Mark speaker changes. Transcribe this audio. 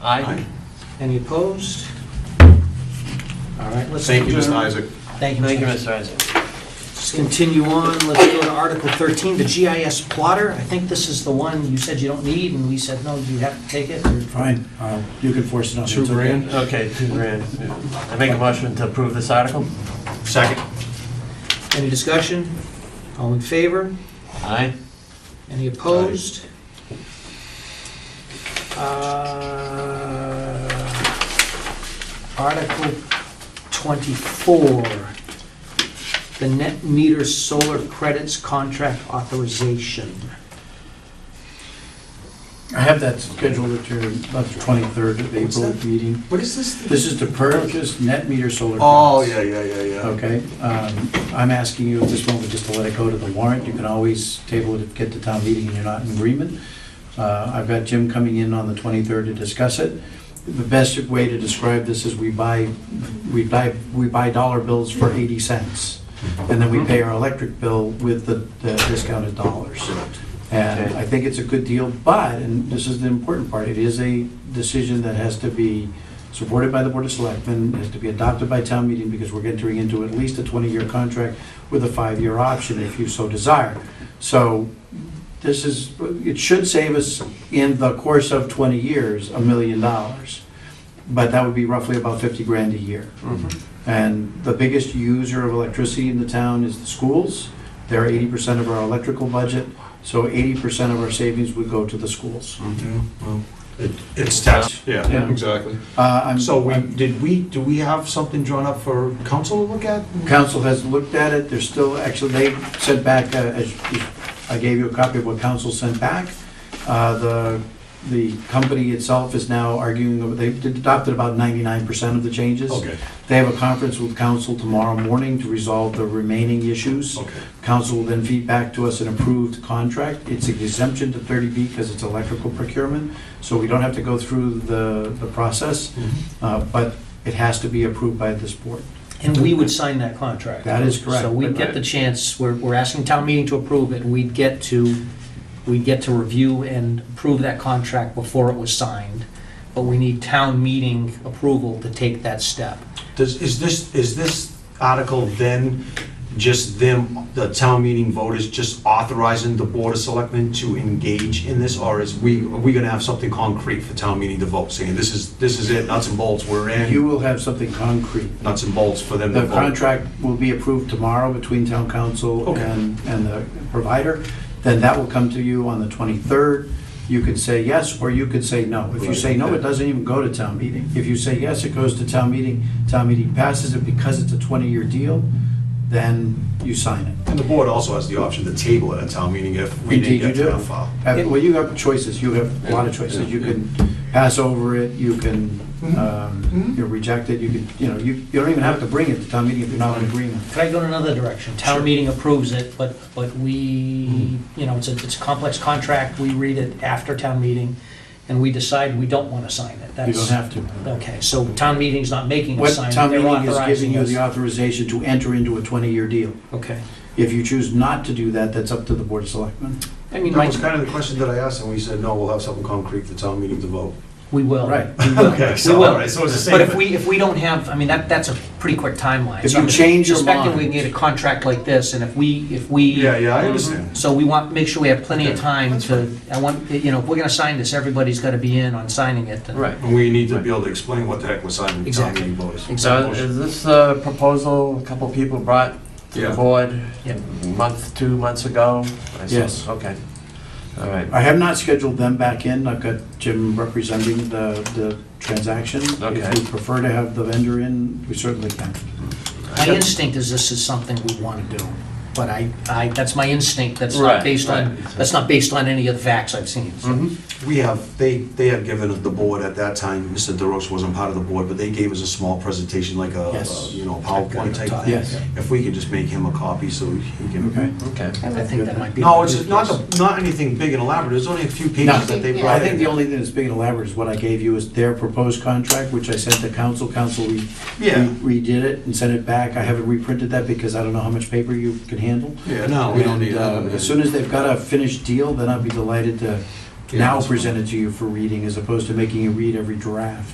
Speaker 1: Aye.
Speaker 2: Any opposed? All right, let's.
Speaker 3: Thank you, Mr.
Speaker 2: adjourn.
Speaker 3: Isaac.
Speaker 1: Thank you, Mr. Isaac.
Speaker 2: Let's continue on. Let's go to Article 13, the GIS plotter. I think this is the one you said you don't need, and we said, no, you have to take it.
Speaker 4: Fine, uh, you can force it on me.
Speaker 3: Two
Speaker 4: it's okay.
Speaker 3: grand.
Speaker 1: Okay, two grand. I make a motion to approve this article?
Speaker 3: Second.
Speaker 2: Any discussion? All in favor?
Speaker 1: Aye.
Speaker 2: Any opposed? Uh, Article 24, the net meter solar credits contract authorization.
Speaker 4: I have that scheduled to about the 23rd of
Speaker 3: What's
Speaker 4: April
Speaker 3: that?
Speaker 4: meeting.
Speaker 3: What is this?
Speaker 4: This is to purchase net meter solar.
Speaker 3: Oh,
Speaker 4: panels.
Speaker 3: yeah, yeah, yeah, yeah.
Speaker 4: Okay, um, I'm asking you at this moment just to let it go to the warrant. You can always table it, if get to town meeting and you're not in agreement. Uh, I've got Jim coming in on the 23rd to discuss it. The best way to describe this is we buy, we buy, we buy dollar bills for 80 cents. And then we pay our electric bill with the the discounted dollars. And
Speaker 1: Okay.
Speaker 4: I think it's a good deal, but, and this is the important part, it is a decision that has to be supported by the Board of Selectmen, has to be adopted by town meeting, because we're entering into at least a 20-year contract with a five-year option if you so desire. So this is, it should save us in the course of 20 years, a million dollars. But that would be roughly about 50 grand a year. And the biggest user of electricity in the town is the schools. They're 80% of our electrical budget, so 80% of our savings would go to the schools.
Speaker 3: Yeah, well, it- It's tax, yeah,
Speaker 4: Yeah.
Speaker 3: exactly.
Speaker 4: Uh, I'm-
Speaker 3: So we,
Speaker 4: I'm-
Speaker 3: did we, do we have something drawn up for council to look at?
Speaker 4: Council has looked at it, they're still, actually, they sent back, uh, as- I gave you a copy of what council sent back. Uh, The, the company itself is now arguing, that they've adopted about 99% of the changes.
Speaker 3: Okay,
Speaker 4: They have a conference with council tomorrow morning to resolve the remaining issues.
Speaker 3: okay.
Speaker 4: Council will then feed back to us an approved contract. It's an exemption to 30B because it's electrical procurement, so we don't have to go through the, the process,
Speaker 3: Mm-hmm.
Speaker 4: uh, but it has to be approved by this board.
Speaker 2: And we would sign that contract.
Speaker 4: That is correct.
Speaker 2: So we'd get the chance, we're, we're asking town meeting to approve it, and we'd get to, we'd get to review and approve that contract before it was signed. But we need town meeting approval to take that step.
Speaker 3: Does, is this, is this article then just them, the town meeting voters just authorizing the board of selectmen to engage in this? Or is we, are we gonna have something concrete for town meeting to vote, saying this is, this is it, nuts and bolts, we're
Speaker 4: You
Speaker 3: in,
Speaker 4: will have something concrete.
Speaker 3: nuts and bolts for them to
Speaker 4: The
Speaker 3: vote?
Speaker 4: contract will be approved tomorrow between town council
Speaker 3: Okay.
Speaker 4: and, and the provider. Then that will come to you on the 23rd. You could say yes, or you could say no. If you
Speaker 3: Right.
Speaker 4: say no, it doesn't even go to town meeting. If you say yes, it goes to town meeting. Town meeting passes it because it's a 20-year deal, then you sign it.
Speaker 3: And the board also has the option to table it at town meeting if we didn't
Speaker 4: Indeed, you
Speaker 3: get to
Speaker 4: do.
Speaker 3: that far.
Speaker 4: Have- Well, you have choices, you have a lot of choices. You can pass over it, you can,
Speaker 2: Mm-hmm.
Speaker 4: um, you know, reject it, you can, you know, you, you don't even have to bring it to town meeting if you're not in agreement.
Speaker 2: Could I go in another direction? Town
Speaker 4: Sure. Mm-hmm.
Speaker 2: meeting approves it, but, but we, you know, it's a, it's a complex contract, we read it after town meeting, and we decide we don't want to sign it.
Speaker 4: You don't
Speaker 2: That's
Speaker 4: have to.
Speaker 2: Okay, so town meeting's not making us
Speaker 4: What
Speaker 2: sign
Speaker 4: town
Speaker 2: it, they're
Speaker 4: meeting is
Speaker 2: authorizing
Speaker 4: giving you
Speaker 2: us.
Speaker 4: the authorization to enter into a 20-year deal.
Speaker 2: Okay.
Speaker 4: If you choose not to do that, that's up to the Board of Selectmen.
Speaker 2: I mean,
Speaker 3: That
Speaker 2: Mike,
Speaker 3: was kind of the question that I asked, and we said, no, we'll have something concrete for town meeting to vote.
Speaker 2: we will.
Speaker 4: Right.
Speaker 3: Okay,
Speaker 2: We will.
Speaker 3: so it's the
Speaker 2: But if we, if we don't have, I mean, that, that's a pretty quick timeline.
Speaker 4: If
Speaker 2: So
Speaker 4: you
Speaker 2: I'm
Speaker 4: change your
Speaker 2: Suspecting we can
Speaker 4: mind.
Speaker 2: get a contract like this, and if we, if we.
Speaker 3: Yeah, yeah, I understand.
Speaker 2: So we want, make sure we have plenty of
Speaker 3: Okay,
Speaker 2: time to, I want, you know, if we're gonna sign this, everybody's gotta be in on signing it. and-
Speaker 1: Right.
Speaker 3: And we need to be able to explain what the heck we're signing to town
Speaker 2: Exactly.
Speaker 3: meeting voters.
Speaker 1: So is this uh, proposal a couple people brought to the
Speaker 3: Yeah.
Speaker 1: board
Speaker 2: Yep.
Speaker 1: a month, two months ago? I saw-
Speaker 4: Yes.
Speaker 1: Okay. All right.
Speaker 4: I have not scheduled them back in. I've got Jim representing the, the transaction.
Speaker 1: Okay.
Speaker 4: If you prefer to have the vendor in, we certainly can.
Speaker 2: My instinct is this is something we wanna do, but I, I, that's my instinct, that's
Speaker 1: Right,
Speaker 2: not based on,
Speaker 1: right.
Speaker 2: that's not based on any of the facts I've seen. so.
Speaker 1: Mhm.
Speaker 3: We have, they, they have given the board at that time, Mr. DeRoche wasn't part of the board, but they gave us a small presentation, like a,
Speaker 4: Yes.
Speaker 3: a, you know, PowerPoint type thing.
Speaker 4: Yes,
Speaker 3: If we could just make him a copy so he can.
Speaker 4: okay.
Speaker 1: Okay.
Speaker 2: I think that might be.
Speaker 3: No, it's not, the- not anything big and elaborate, there's only a few pages that they
Speaker 5: Yeah.
Speaker 4: I
Speaker 3: brought
Speaker 4: think the
Speaker 3: in.
Speaker 4: only thing that's big and elaborate is what I gave you is their proposed contract, which I sent to council. Council, we
Speaker 3: Yeah.
Speaker 4: we redid it and sent it back. I haven't reprinted that because I don't know how much paper you can handle.
Speaker 3: Yeah, no, we don't need
Speaker 4: And, uh,
Speaker 3: that.
Speaker 4: As soon as they've got a finished deal, then I'd be delighted to, now presented to you for reading, as opposed to making you read every draft.